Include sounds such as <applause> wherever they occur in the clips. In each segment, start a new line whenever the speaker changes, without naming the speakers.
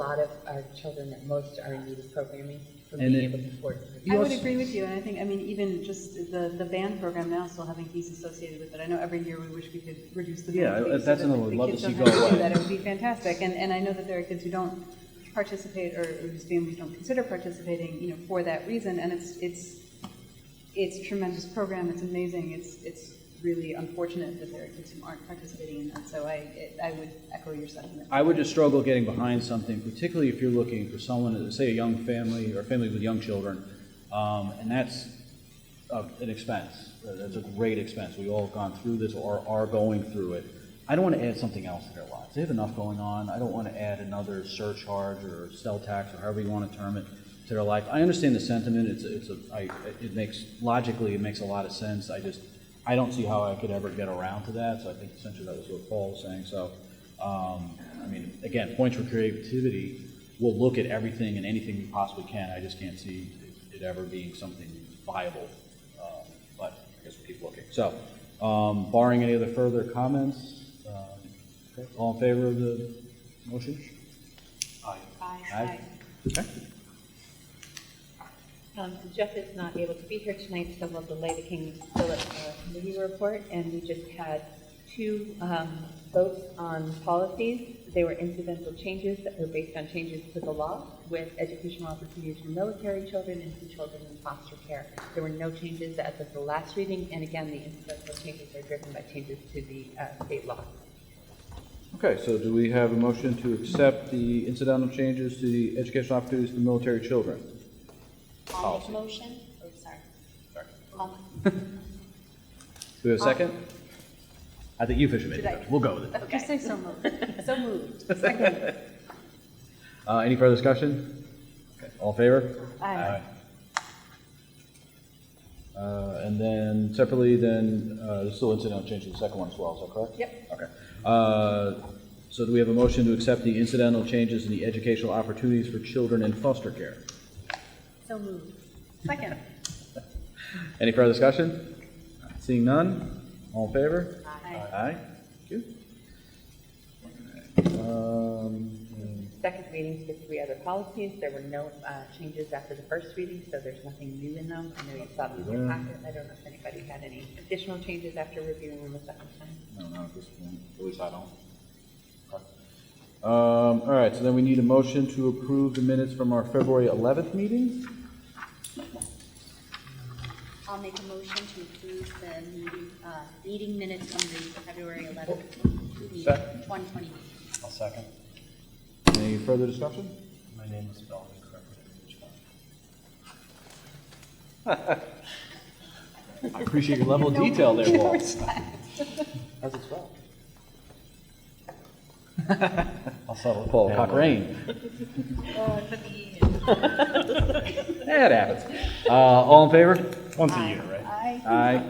a lot of our children at most are in need of programming for
And
being
it-
able to afford. it.
You
I would
also-
agree with you, and I think, I mean, even just the, the band program now still having fees associated with it. I know every year we wish we could reduce the.
Yeah, uh,
fees so
that's
that
another one.
the
Love to
kids
see
don't have
go
do
away.
That it would be fantastic, and, and I know that there are kids who don't participate or or whose families don't consider participating, you know, for that reason, and it's, it's, it's tremendous program, it's amazing, it's, it's really unfortunate that there are kids who aren't participating in that, so I, it- I would echo your sentiment.
I would just struggle getting behind something, particularly if you're looking for someone, say a young family or a family with young children, um, and that's uh, an expense. Uh, That's a great expense. We all have gone through this or are going through it. I don't want to add something else to their lives. They have enough going on. I don't want to add another surcharge or sell tax or however you want to term it to their life. I understand the sentiment. It's a, it's a I, it makes logically it makes a lot of sense. I just I don't see how I could ever get around to that. So I think essentially that was what Paul was saying. So um, I mean, again, points for creativity. We'll look at everything and anything we possibly can. I just can't see it ever being something viable. Um, but I guess we'll keep looking. So, um, barring any other further comments, uh, all in favor of the motion? Aye. Aye. Okay.
Um, Jeff is not able to be here tonight, so we'll delay the King Philip uh, Committee report, and we just had two um, votes on policies. They were incidental changes that were based on changes to the law with educational opportunities for military children and for children in foster care. There were no changes as of the last reading, and again, the incidental changes are driven by changes to the uh, state law.
Okay, so do we have a motion to accept the incidental changes to the educational opportunities for military children?
I'll make
Policy.
a motion, oh, sorry.
Sorry.
I'll-
Do we have a second? I think you officially made the motion. We'll go with it.
Just say so moved.
So moved.
Uh, any further discussion? Okay, All in favor?
Aye.
Uh, and then separately, then, uh, there's still incidental change to the second one as well, is that correct?
Yep.
Okay. Uh, so do we have a motion to accept the incidental changes in the educational opportunities for children in foster care?
So moved.
Second.
Any further discussion? Seeing none, all in favor? Aye. Aye, thank you. Um,
Second readings with three other policies. There were no uh, changes after the first reading, so there's nothing new in them. I know you saw them in your packet. I don't know if anybody had any additional changes after reviewing them a second time.
No, not at this point, at least I don't. Okay. Um, all right, so then we need a motion to approve the minutes from our February eleventh meeting?
I'll make a motion to approve the meeting, uh, meeting minutes from the February 11th, meeting,
Second.
2020.
I'll second.
Any further discussion?
My name was spelled incorrectly in each one.
<laughs> I appreciate your level of detail there, Paul.
How's it <laughs> spelled? I'll settle. it.
Paul
Yeah,
Cochrane.
Uh,
Oh, for the,
That happens. Uh, all in favor?
Once a year, right?
Aye.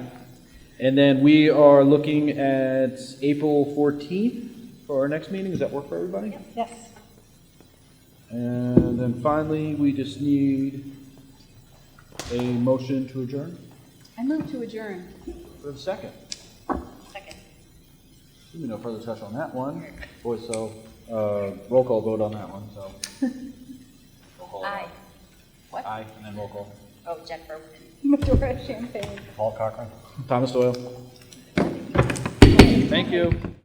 And then we are looking at April fourteenth for our next meeting. Does that work for everybody?
Yes.
And then finally, we just need a motion to adjourn.
I move to adjourn.
For a second.
second.
There'll be no further discussion on that one. Boy, so, uh, roll call vote on that one,
<laughs>
so. Roll call.
Aye. What?
Aye, and then roll call.
Oh, Jennifer Overton.
Medora Champagne.
Paul Cochran.
Thomas Doyle. Thank you.